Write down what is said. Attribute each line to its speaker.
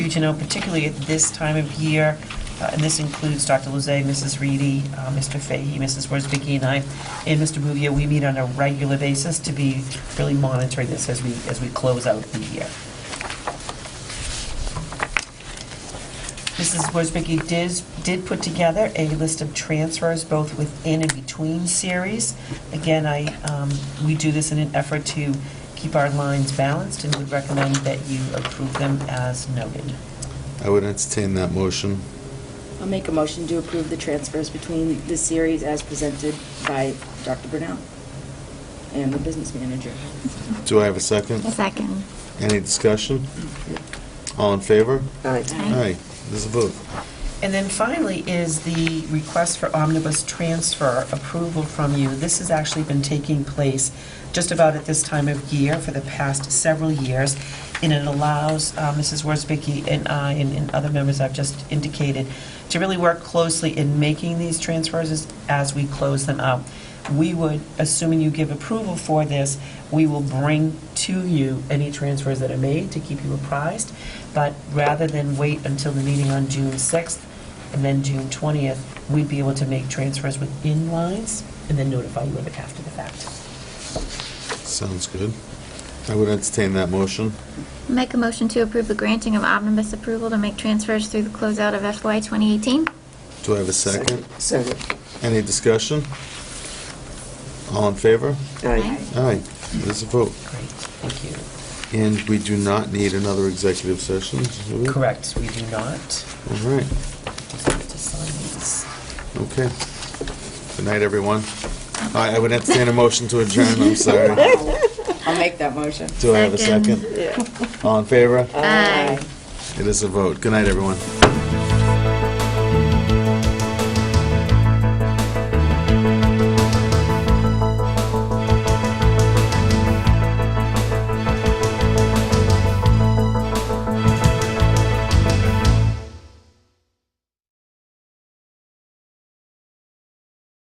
Speaker 1: to know, particularly at this time of year, uh, and this includes Dr. Luzay, Mrs. Reedy, uh, Mr. Fahey, Mrs. Worsbicky, and I, and Mr. Bouvier, we meet on a regular basis to be really monitoring this as we, as we close out the year. Mrs. Worsbicky did, did put together a list of transfers, both within and between series. Again, I, um, we do this in an effort to keep our lines balanced and would recommend that you approve them as noted.
Speaker 2: I would entertain that motion.
Speaker 3: I'll make a motion to approve the transfers between the series as presented by Dr. Brunel and the business manager.
Speaker 2: Do I have a second?
Speaker 4: A second.
Speaker 2: Any discussion? All in favor?
Speaker 3: Aye.
Speaker 2: Aye, there's a vote.
Speaker 1: And then finally is the request for omnibus transfer approval from you. This has actually been taking place just about at this time of year for the past several years, and it allows uh, Mrs. Worsbicky and I and- and other members I've just indicated to really work closely in making these transfers as- as we close them out. We would, assuming you give approval for this, we will bring to you any transfers that are made to keep you apprised. But rather than wait until the meeting on June 6th and then June 20th, we'd be able to make transfers within lines and then notify you of it after the fact.
Speaker 2: Sounds good. I would entertain that motion.
Speaker 4: Make a motion to approve the granting of omnibus approval to make transfers through the closeout of FY 2018.
Speaker 2: Do I have a second?
Speaker 5: Second.
Speaker 2: Any discussion? All in favor?
Speaker 4: Aye.
Speaker 2: Aye, there's a vote.
Speaker 1: Great, thank
Speaker 2: And we do not need another executive session, do we?
Speaker 1: you. Correct, we do not.
Speaker 2: All right,
Speaker 1: Just have to sign these.
Speaker 2: okay. Good night, everyone. I I would entertain a motion to adjourn, I'm sorry.
Speaker 3: I'll make that motion.
Speaker 2: Do I have a second?
Speaker 4: Second.
Speaker 2: All in favor?
Speaker 4: Aye.
Speaker 2: It is a vote. Good night, everyone.